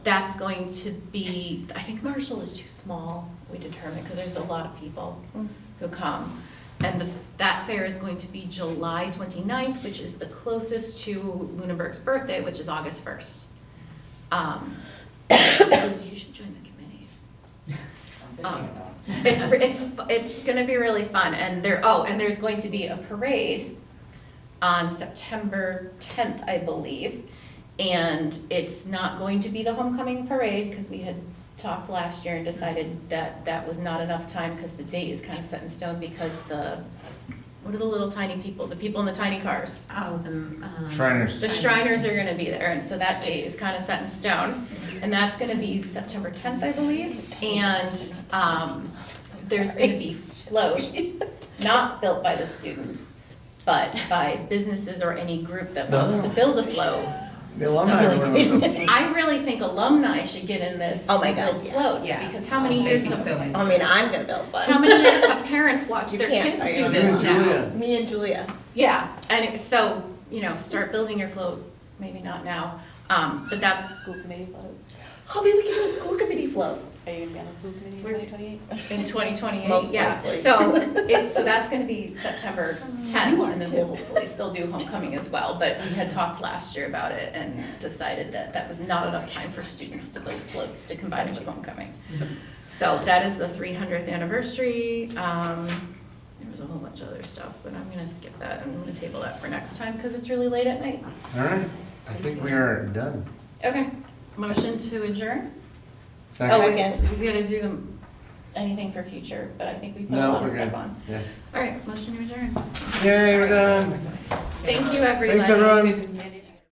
that's going to be, I think Marshall is too small, we determined, because there's a lot of people who come. And the, that fair is going to be July 29th, which is the closest to Lunenburg's birthday, which is August 1st. Um, Liz, you should join the committee. Um, It's, re- it's, fu- it's gonna be really fun, and there, oh, and there's going to be a parade on September tenth, I believe. And it's not going to be the homecoming parade, because we had talked last year and decided that that was not enough time, because the date is kind of set in stone, because the, what are the little tiny people, the people in the tiny cars? Oh, um, um, The Shriners. Shriners are gonna be there, and so that date is kind of set in stone. And that's gonna be September tenth, I believe, and, um, there's gonna be floats, not built by the students, but by businesses or any group that wants to build a float. The alumni are one of them. I really think alumni should get in this. Oh my God, build yes. Floats, Yeah. because how many years Thank you so have, much. I mean, I'm gonna build one. how many years have parents watched You their can't kids say do that. You this and now? Julia. Me and Julia. Yeah, and it- so, you know, start building your float, maybe not now, um, but that's. School committee float. Hobby, we can do a school committee float. Are you gonna be on the school committee in We're- twenty twenty-eight? In twenty twenty-eight, Most yeah, likely. so it's, so that's gonna be September tenth, You are and then too. we'll hopefully still do homecoming as well, but we had talked last year about it and decided that that was not enough time for students to build floats to combine it with homecoming. Mm-hmm. So that is the three hundredth anniversary, um, there was a whole bunch of other stuff, but I'm gonna skip that, I'm gonna table that for next time, cause it's really late at night. All right, I think we are done. Okay, motion to adjourn? Second? Oh, Second. We gotta do them, anything for future, but I think we put a No, lot of we're good. stuff on. Yeah. All right, motion to adjourn. Yay, we're done. Thank you, everybody. Thanks, everyone.